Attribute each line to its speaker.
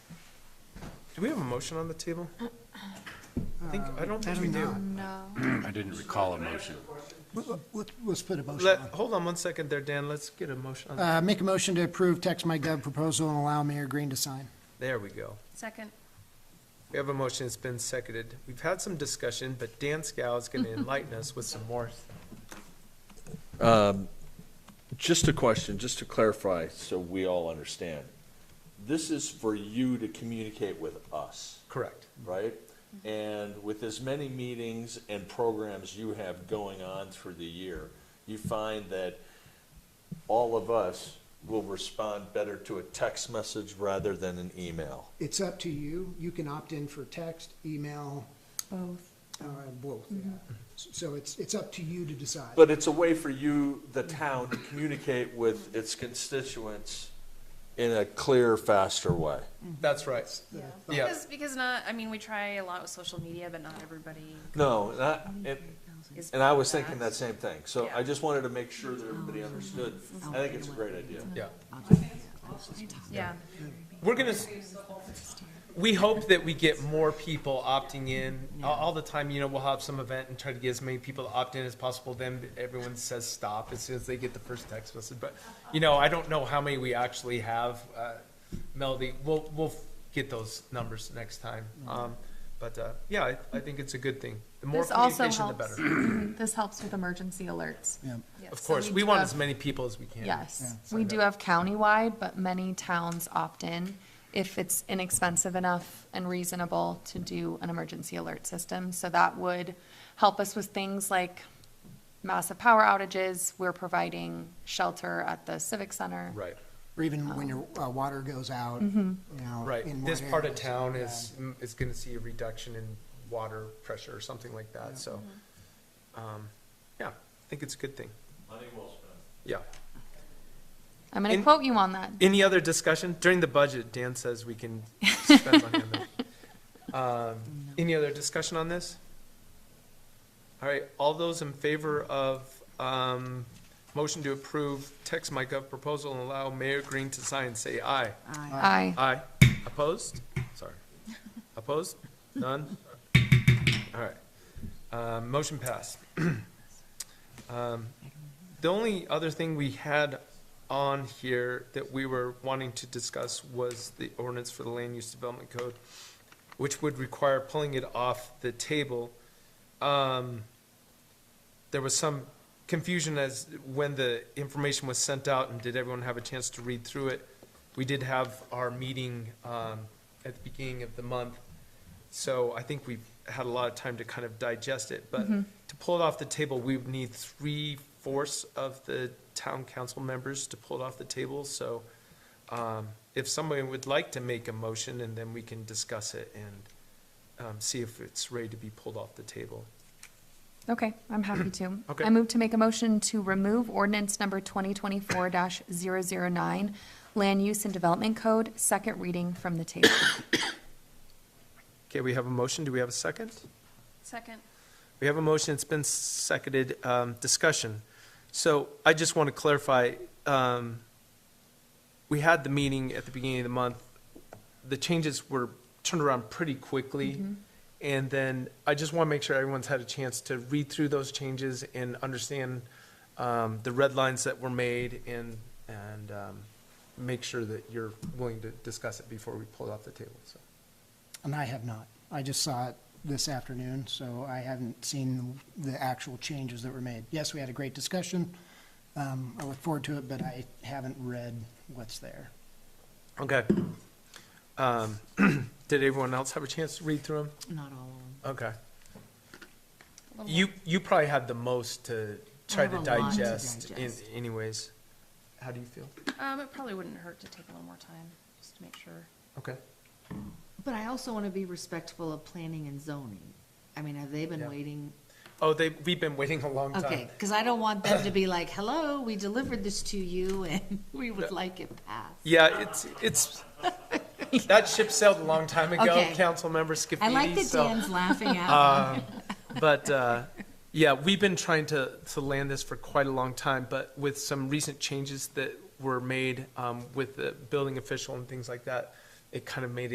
Speaker 1: Do we have a motion on the table? I think, I don't think we do.
Speaker 2: No.
Speaker 3: I didn't recall a motion.
Speaker 4: We'll, we'll- we'll split a motion
Speaker 1: Let,
Speaker 4: on.
Speaker 1: hold on one second there, Dan, let's get a motion on,
Speaker 4: Uh, make a motion to approve text my gov proposal and allow Mayor Green to sign.
Speaker 1: there we go.
Speaker 2: Second.
Speaker 1: We have a motion, it's been seconded. We've had some discussion, but Dan Scow is gonna enlighten us with some more.
Speaker 5: Just a question, just to clarify, so we all understand. This is for you to communicate with us,
Speaker 1: Correct.
Speaker 5: right? And with as many meetings and programs you have going on through the year, you find that all of us will respond better to a text message rather than an email.
Speaker 4: It's up to you. You can opt in for text, email,
Speaker 2: Both.
Speaker 4: uh, both, yeah. So it's, it's up to you to decide.
Speaker 5: But it's a way for you, the town, to communicate with its constituents in a clear, faster way.
Speaker 1: That's right.
Speaker 2: Yeah.
Speaker 1: Yeah.
Speaker 2: Because, because not, I mean, we try a lot with social media, but not everybody
Speaker 5: No, and I, and,
Speaker 2: is.
Speaker 5: and I was thinking that same thing, so I
Speaker 2: Yeah. Mm-hmm.
Speaker 5: just wanted to make sure that everybody understood. I think it's a great idea.
Speaker 1: Yeah.
Speaker 2: Yeah.
Speaker 1: We're gonna, s- we hope that we get more people opting in. All, all the time, you know, we'll have some event and try to get as many people to opt in as possible. Then everyone says stop as soon as they get the first text message. But, you know, I don't know how many we actually have. Uh, Melody, we'll, we'll get those numbers next time. Um, but, uh, yeah, I, I think it's a good thing. The more
Speaker 6: This also
Speaker 1: communication, the
Speaker 6: helps,
Speaker 1: better.
Speaker 6: this helps with emergency alerts.
Speaker 4: Yeah.
Speaker 2: Yes.
Speaker 1: Of
Speaker 6: So
Speaker 1: course,
Speaker 6: we
Speaker 1: we
Speaker 6: do
Speaker 1: want
Speaker 6: have-
Speaker 1: as many people as we can.
Speaker 6: Yes,
Speaker 4: Yeah.
Speaker 6: we do have countywide, but many towns opt in if it's inexpensive enough and reasonable to do an emergency alert system. So that would help us with things like massive power outages. We're providing shelter at the civic center.
Speaker 1: Right.
Speaker 4: Or even when your, uh, water goes out, you know. in
Speaker 1: Right, this
Speaker 4: what
Speaker 1: part of
Speaker 4: areas.
Speaker 1: town is, is gonna see a reduction in water pressure or something like that, so. um, Yeah, I think it's a good thing,
Speaker 5: Money well spent.
Speaker 1: yeah.
Speaker 6: I'm going
Speaker 1: In-
Speaker 6: to quote you on that.
Speaker 1: Any other discussion? During the budget, Dan says we can spend money on that. Um, Any other discussion on this? All right, all those in favor of, um, motion to approve text my gov proposal and allow Mayor Green to sign, say aye.
Speaker 6: Aye.
Speaker 1: Aye. Opposed? Sorry. Opposed? None? All right. Um, Motion passed. Um, The only other thing we had on here that we were wanting to discuss was the ordinance for the land use development code, which would require pulling it off the table. Um, There was some confusion as when the information was sent out and did everyone have a chance to read through it? We did have our meeting um, at the beginning of the month, so I think we've had a lot of time to kind of digest it. But to pull it off the table, we would need three fourths of the town council members to pull it off the table. So um, if somebody would like to make a motion, and then we can discuss it and um, see if it's ready to be pulled off the table.
Speaker 6: Okay, I'm happy to.
Speaker 1: Okay.
Speaker 6: I move to make a motion to remove ordinance number 2024-009, Land Use and Development Code, second reading from the table.
Speaker 1: Okay, we have a motion. Do we have a second?
Speaker 2: Second.
Speaker 1: We have a motion, it's been seconded, um, discussion. So I just want to clarify, um, we had the meeting at the beginning of the month. The changes were turned around pretty quickly. And then I just want to make sure everyone's had a chance to read through those changes and understand, um, the red lines that were made and, and, um, make sure that you're willing to discuss it before we pull it off the table, so.
Speaker 4: And I have not. I just saw it this afternoon, so I haven't seen the actual changes that were made. Yes, we had a great discussion. Um, I look forward to it, but I haven't read what's there.
Speaker 1: Okay. Um, Did everyone else have a chance to read through them?
Speaker 7: Not all of
Speaker 1: Okay. You, you probably had the most to try
Speaker 7: have
Speaker 1: to
Speaker 7: a lot to
Speaker 1: digest in
Speaker 7: digest.
Speaker 1: anyways. How do you feel?
Speaker 2: Um, it probably wouldn't hurt to take a little more time, just to make sure.
Speaker 1: Okay.
Speaker 7: But I also want to be respectful of planning and zoning. I mean, have they
Speaker 1: Yeah.
Speaker 7: been waiting?
Speaker 1: Oh, they, we've been waiting a long
Speaker 7: Okay,
Speaker 1: time.
Speaker 7: because I don't want them to be like, hello, we delivered this to you and we would like it passed.
Speaker 1: Yeah, it's, it's, that ship sailed a long time ago,
Speaker 7: Okay.
Speaker 1: council member
Speaker 7: I like
Speaker 1: Scafidi,
Speaker 7: that
Speaker 1: so.
Speaker 7: Dan's laughing at me.
Speaker 1: But, uh, yeah, we've been trying to, to land this for quite a long time, but with some recent changes that were made, um, with the building official and things like that, it kind of made